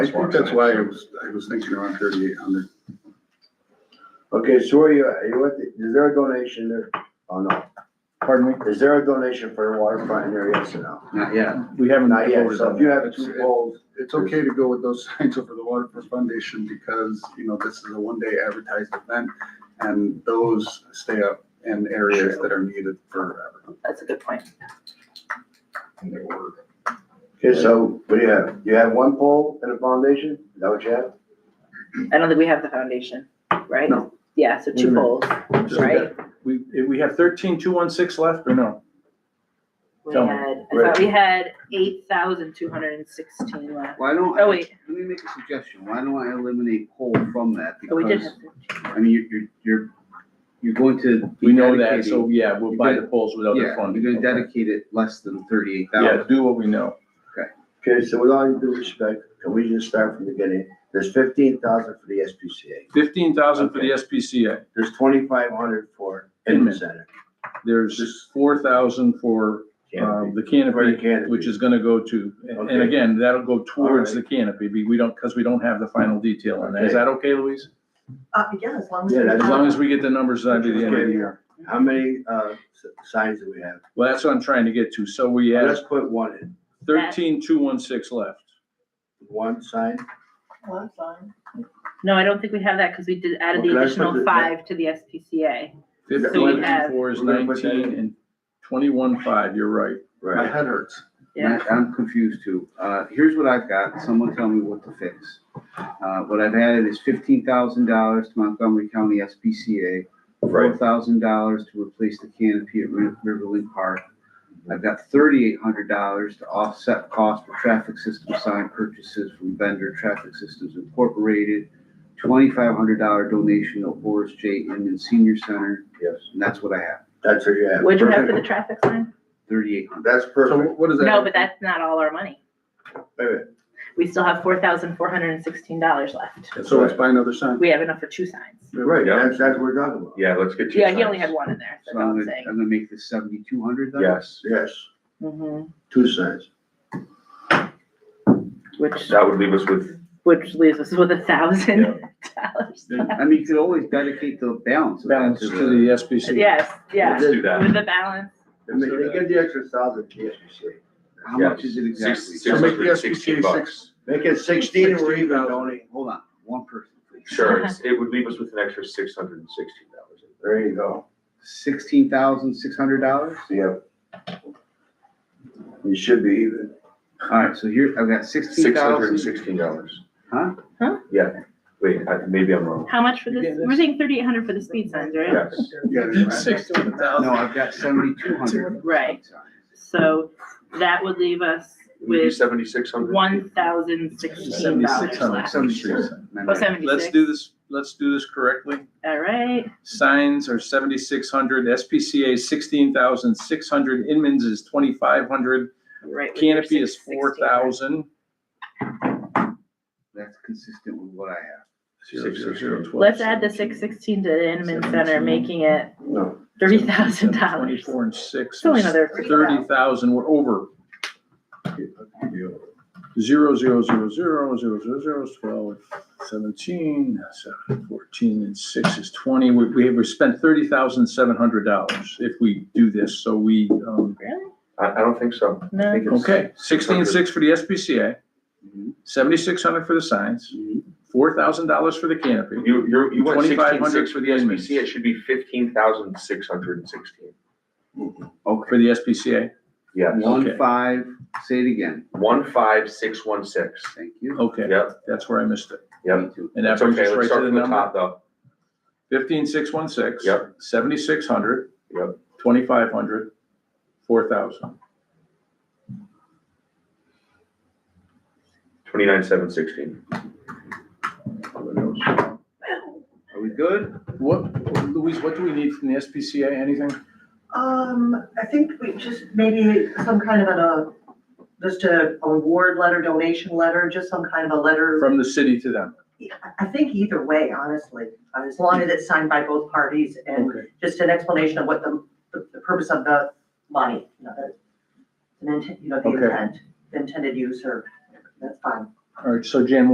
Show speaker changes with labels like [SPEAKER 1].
[SPEAKER 1] I think that's why I was, I was thinking around thirty-eight hundred.
[SPEAKER 2] Okay, so where are you at? You at the- is there a donation there? Oh, no.
[SPEAKER 3] Pardon me?
[SPEAKER 2] Is there a donation for the waterfront in there? Yes or no?
[SPEAKER 4] Not yet.
[SPEAKER 3] We haven't.
[SPEAKER 2] Not yet.
[SPEAKER 3] voted
[SPEAKER 2] So
[SPEAKER 3] on
[SPEAKER 2] if you
[SPEAKER 3] that.
[SPEAKER 2] have two poles,
[SPEAKER 1] It's okay to go with those signs over the Waterfront Foundation because, you know, this is a one-day advertised event and those stay up in areas that are needed forever.
[SPEAKER 5] That's a good point.
[SPEAKER 2] okay, so what do you have? You have one pole and a foundation? Is that what you have?
[SPEAKER 5] I don't think we have the foundation, right?
[SPEAKER 1] No.
[SPEAKER 5] Yeah, so two
[SPEAKER 3] Mhm.
[SPEAKER 5] poles,
[SPEAKER 3] Just like
[SPEAKER 5] right?
[SPEAKER 3] We, if we have thirteen, two, one, six left or no?
[SPEAKER 5] We
[SPEAKER 3] Tell me.
[SPEAKER 5] had, I thought we had eight thousand two hundred and sixteen left.
[SPEAKER 4] Why don't,
[SPEAKER 5] Oh,
[SPEAKER 4] I-
[SPEAKER 5] wait.
[SPEAKER 4] let me make a suggestion, why don't I eliminate pole from that?
[SPEAKER 5] Oh, we did
[SPEAKER 4] Because,
[SPEAKER 5] have.
[SPEAKER 4] I mean, you're, you're, you're, you're going to. be
[SPEAKER 3] We know that,
[SPEAKER 4] dedicating-
[SPEAKER 3] so yeah, we'll buy the polls without the
[SPEAKER 4] Yeah,
[SPEAKER 3] funding.
[SPEAKER 4] you're gonna dedicate it less than thirty-eight
[SPEAKER 3] Yeah,
[SPEAKER 4] thousand.
[SPEAKER 3] do what we know.
[SPEAKER 2] Okay, so with all due respect, can we just start from the beginning? There's fifteen thousand for the SPCA.
[SPEAKER 3] Fifteen thousand for the SPCA.
[SPEAKER 2] There's twenty-five hundred for Inman Center.
[SPEAKER 3] Uh, There's four thousand for, uh,
[SPEAKER 2] Canopy.
[SPEAKER 3] the
[SPEAKER 2] For the
[SPEAKER 3] canopy,
[SPEAKER 2] canopy.
[SPEAKER 3] which is gonna go to, and- and
[SPEAKER 2] Okay.
[SPEAKER 3] again, that'll go towards the canopy. be- We don't, because we don't have the final detail on that. Is
[SPEAKER 2] Okay.
[SPEAKER 3] that okay, Louise?
[SPEAKER 6] Uh, yeah, as long as.
[SPEAKER 2] Yeah,
[SPEAKER 6] we
[SPEAKER 2] that's-
[SPEAKER 3] As
[SPEAKER 6] have-
[SPEAKER 3] long as we get the numbers by
[SPEAKER 2] Which
[SPEAKER 3] the
[SPEAKER 2] is
[SPEAKER 3] end of the
[SPEAKER 2] good.
[SPEAKER 3] year.
[SPEAKER 2] How many, uh, s- signs do we have?
[SPEAKER 3] Well, that's what I'm trying to get to. So we have
[SPEAKER 2] Let's put one in,
[SPEAKER 3] thirteen, two, one, six left.
[SPEAKER 2] one sign.
[SPEAKER 6] Well, that's fine.
[SPEAKER 5] No, I don't think we have that because we did added
[SPEAKER 2] Well,
[SPEAKER 5] the
[SPEAKER 2] can I put
[SPEAKER 5] additional
[SPEAKER 2] the-
[SPEAKER 5] five to the SPCA. So we
[SPEAKER 3] Fifteen
[SPEAKER 5] have-
[SPEAKER 3] and four is
[SPEAKER 2] We're gonna put that
[SPEAKER 3] nineteen
[SPEAKER 2] in.
[SPEAKER 3] and twenty-one, five, you're right.
[SPEAKER 1] My head hurts.
[SPEAKER 5] Yeah.
[SPEAKER 4] And I- I'm confused too. Uh, here's what I've got, someone tell me what to fix. Uh, what I've added is fifteen thousand dollars to Montgomery County SPCA, four
[SPEAKER 2] Right.
[SPEAKER 4] thousand dollars to replace the canopy at Ri- Riverland Park. I've got thirty-eight hundred dollars to offset cost for traffic system sign purchases from vendor Traffic Systems Incorporated. Twenty-five hundred dollar donation to Horace J. Inman Senior Center,
[SPEAKER 2] Yes.
[SPEAKER 4] and that's what I have,
[SPEAKER 2] That's what you have.
[SPEAKER 5] What'd you have for the traffic sign?
[SPEAKER 4] thirty-eight hundred.
[SPEAKER 2] That's
[SPEAKER 1] So
[SPEAKER 2] perfect.
[SPEAKER 1] what is that?
[SPEAKER 5] No, but that's not all our money.
[SPEAKER 2] Wait, wait.
[SPEAKER 5] We still have four thousand four hundred and sixteen dollars left.
[SPEAKER 2] That's
[SPEAKER 1] So
[SPEAKER 2] right.
[SPEAKER 1] it's by another sign.
[SPEAKER 5] We have enough for two signs.
[SPEAKER 2] Right, that's, that's what we're talking about.
[SPEAKER 7] Yeah, let's get you.
[SPEAKER 5] Yeah, he only had one in there, that's
[SPEAKER 4] So
[SPEAKER 5] all
[SPEAKER 4] I'm
[SPEAKER 5] I'm
[SPEAKER 4] gonna, I'm
[SPEAKER 5] saying.
[SPEAKER 4] gonna make this seventy-two hundred then?
[SPEAKER 7] Yes,
[SPEAKER 2] Yes,
[SPEAKER 5] Mhm.
[SPEAKER 2] two signs.
[SPEAKER 5] Which,
[SPEAKER 7] that would leave us with,
[SPEAKER 5] which leaves us with a thousand dollars.
[SPEAKER 4] I mean, you could always dedicate the balance of that
[SPEAKER 3] Balance
[SPEAKER 4] to
[SPEAKER 3] to
[SPEAKER 4] the.
[SPEAKER 3] the SBC.
[SPEAKER 5] Yes,
[SPEAKER 7] let's
[SPEAKER 5] yes,
[SPEAKER 7] do
[SPEAKER 5] with
[SPEAKER 7] that.
[SPEAKER 5] the balance.
[SPEAKER 2] I mean, they get the extra thousand, to the SPCA.
[SPEAKER 4] How much is it exactly?
[SPEAKER 7] Six
[SPEAKER 1] So make the
[SPEAKER 7] hundred sixteen
[SPEAKER 1] SPCA
[SPEAKER 7] bucks.
[SPEAKER 1] six-
[SPEAKER 2] Make it sixteen or even,
[SPEAKER 1] 16,000.
[SPEAKER 2] Tony.
[SPEAKER 4] Hold on, one person, please.
[SPEAKER 7] Sure,
[SPEAKER 5] Uh-huh.
[SPEAKER 7] it's- it would leave us with an extra six hundred and sixteen dollars.
[SPEAKER 2] There you go.
[SPEAKER 4] Sixteen thousand, six hundred dollars?
[SPEAKER 2] Yep. You should be even.
[SPEAKER 4] All right, so here, I've got sixteen
[SPEAKER 7] Six hundred and
[SPEAKER 4] thousand.
[SPEAKER 7] sixteen dollars.
[SPEAKER 4] Huh?
[SPEAKER 5] Huh?
[SPEAKER 7] Yeah, wait, I- maybe I'm wrong.
[SPEAKER 5] How much for
[SPEAKER 3] Yeah,
[SPEAKER 5] this?
[SPEAKER 3] that's-
[SPEAKER 5] We're saying thirty-eight hundred for the speed signs, right?
[SPEAKER 7] Yes,
[SPEAKER 1] Yeah, that's right.
[SPEAKER 3] Sixteen
[SPEAKER 4] No,
[SPEAKER 3] thousand.
[SPEAKER 4] I've got seventy-two hundred.
[SPEAKER 5] Right. So that would leave us
[SPEAKER 7] it would be
[SPEAKER 5] with
[SPEAKER 7] seventy-six hundred.
[SPEAKER 5] one thousand sixteen dollars
[SPEAKER 3] Seventy-six hundred,
[SPEAKER 5] left.
[SPEAKER 3] seventy-six.
[SPEAKER 5] Oh,
[SPEAKER 3] Let's
[SPEAKER 5] seventy-six,
[SPEAKER 3] do this, let's do this correctly.
[SPEAKER 5] all right.
[SPEAKER 3] Signs are seventy-six hundred, SPCA sixteen thousand six hundred, Inman's is twenty-five hundred,
[SPEAKER 5] Right. we were
[SPEAKER 3] canopy is
[SPEAKER 5] six- 16,
[SPEAKER 3] four thousand.
[SPEAKER 4] That's consistent with what I have.
[SPEAKER 5] right? Let's add the six sixteen to the Inman Center,
[SPEAKER 3] 17.
[SPEAKER 5] making it
[SPEAKER 2] No.
[SPEAKER 5] thirty thousand dollars.
[SPEAKER 3] Twenty-four and six.
[SPEAKER 5] It's only another three
[SPEAKER 3] Thirty thousand, we're over. Zero, zero, zero, zero, zero, zero, zero, twelve, seventeen, seven, fourteen, and six is twenty. We, we have, we spent thirty thousand seven hundred dollars if we do this, so we, um,
[SPEAKER 5] Really?
[SPEAKER 7] I, I don't think so. I
[SPEAKER 5] No,
[SPEAKER 7] think it's-
[SPEAKER 3] okay, sixteen six for the SPCA,
[SPEAKER 4] Mhm.
[SPEAKER 3] seventy-six hundred for the signs, four thousand dollars for the canopy.
[SPEAKER 7] You, you're, you went
[SPEAKER 3] 2,500
[SPEAKER 7] sixteen-six for the
[SPEAKER 3] Edmonds.
[SPEAKER 7] SBC, it should be fifteen thousand six hundred and sixteen.
[SPEAKER 3] For the SPCA,
[SPEAKER 7] Yes,
[SPEAKER 4] One five, say it again,
[SPEAKER 7] one-five-six-one-six.
[SPEAKER 4] thank you.
[SPEAKER 3] okay,
[SPEAKER 7] Yep,
[SPEAKER 3] that's where I missed it.
[SPEAKER 7] yep.
[SPEAKER 4] Me too.
[SPEAKER 3] And that
[SPEAKER 7] It's
[SPEAKER 3] brings us
[SPEAKER 7] okay, let's
[SPEAKER 3] right
[SPEAKER 7] start
[SPEAKER 3] to the
[SPEAKER 7] from the
[SPEAKER 3] number.
[SPEAKER 7] top though.
[SPEAKER 3] Fifteen six one six.
[SPEAKER 7] Yep.
[SPEAKER 3] Seventy-six hundred.
[SPEAKER 7] Yep.
[SPEAKER 3] Twenty-five hundred, four thousand.
[SPEAKER 7] Twenty-nine, seven, sixteen.
[SPEAKER 4] Are we good?
[SPEAKER 3] What, Louise, what do we need from the SPCA, anything?
[SPEAKER 6] Um, I think we just maybe some kind of a, just a award letter, donation letter, just some kind of a letter.
[SPEAKER 3] From the city to them?
[SPEAKER 6] I think either way, honestly, uh, as long as it's signed by both parties and
[SPEAKER 3] Okay.
[SPEAKER 6] just an explanation of what the, the the purpose of the money, you know, the, the intent- you know, the
[SPEAKER 3] Okay.
[SPEAKER 6] intent, intended use or, that's fine.
[SPEAKER 3] All right, so Jan,